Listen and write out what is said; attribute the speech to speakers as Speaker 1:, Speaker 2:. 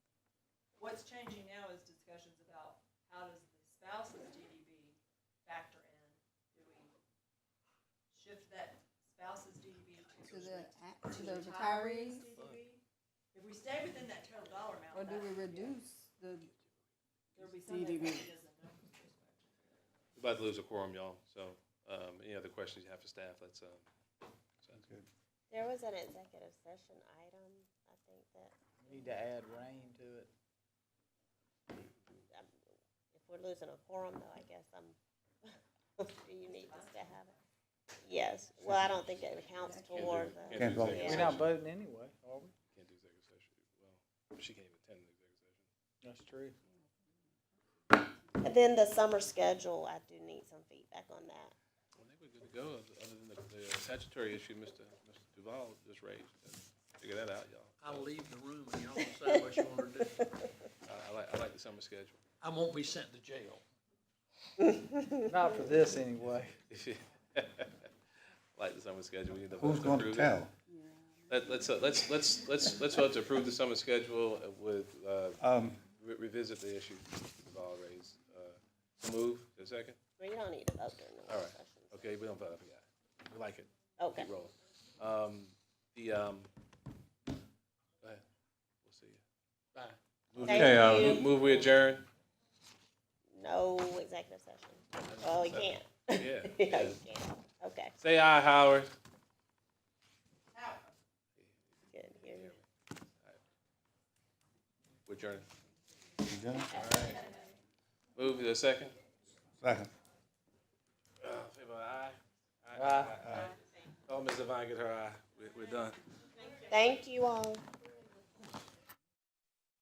Speaker 1: what's changing now is discussions about how does the spouse's DDB factor in? Do we shift that spouse's DDB
Speaker 2: to
Speaker 1: to?
Speaker 2: the, a- to the retirees?
Speaker 1: DDB? If we stay within that total dollar amount,
Speaker 2: Or do
Speaker 1: that-
Speaker 2: we reduce the,
Speaker 1: there'll be some
Speaker 2: DDB?
Speaker 1: impact it is in numbers perspective.
Speaker 3: We're about to lose a quorum, y'all, so, um, any other questions you have for staff, that's, uh, so-
Speaker 4: There was an executive session item, I think that,
Speaker 5: Need to add rain to it.
Speaker 4: um, if we're losing a quorum though, I guess I'm, do you need us to have it? Yes, well, I don't think it counts
Speaker 3: Can't do-
Speaker 4: toward the,
Speaker 3: can't do
Speaker 6: Can't vote.
Speaker 3: executive
Speaker 5: We're not
Speaker 3: session.
Speaker 5: voting anyway, are we?
Speaker 3: Can't do executive session, well, she can't even attend the executive session.
Speaker 5: That's true.
Speaker 4: And then the summer schedule, I do need some feedback on that.
Speaker 3: I think we're good to go, other than the- the statutory issue Mr. Mr. Duval just raised. Figure that out, y'all.
Speaker 7: I'll leave the room and y'all decide what you want to do.
Speaker 3: I, I like, I like the summer schedule.
Speaker 7: I won't be sent to jail.
Speaker 5: Not for this anyway.
Speaker 3: Like the summer schedule, we need to vote
Speaker 6: Who's
Speaker 3: to
Speaker 6: gonna
Speaker 3: approve it.
Speaker 6: tell?
Speaker 3: Let, let's, uh, let's, let's, let's, let's vote to approve the summer schedule uh, with, uh,
Speaker 6: Um,
Speaker 3: re- revisit the issue Mr. Duval raised. Uh, so Move, Is there a second?
Speaker 4: Well, you don't need to vote during the
Speaker 3: All
Speaker 4: work
Speaker 3: right.
Speaker 4: session.
Speaker 3: Okay, we don't vote, I forgot. We like it.
Speaker 4: Okay.
Speaker 3: Keep rolling. Um, the, um, go ahead. We'll see you.
Speaker 7: Bye.
Speaker 3: Move-
Speaker 4: Thank
Speaker 3: Okay, uh,
Speaker 4: you.
Speaker 3: mo- Move, we adjourn?
Speaker 4: No executive session. Well, Oh, you can't.
Speaker 3: Yeah,
Speaker 4: Yeah,
Speaker 3: yeah.
Speaker 4: you can't. Okay,
Speaker 3: Say aye, Howard.
Speaker 1: How,
Speaker 4: good, hear you.
Speaker 3: We're adjourned.
Speaker 6: you done?
Speaker 3: Move to the second.
Speaker 6: Second.
Speaker 3: Uh, favor aye.
Speaker 5: Aye.
Speaker 3: Aye. Oh, Ms. Devine, get her aye. We're, we're done.
Speaker 4: Thank you all.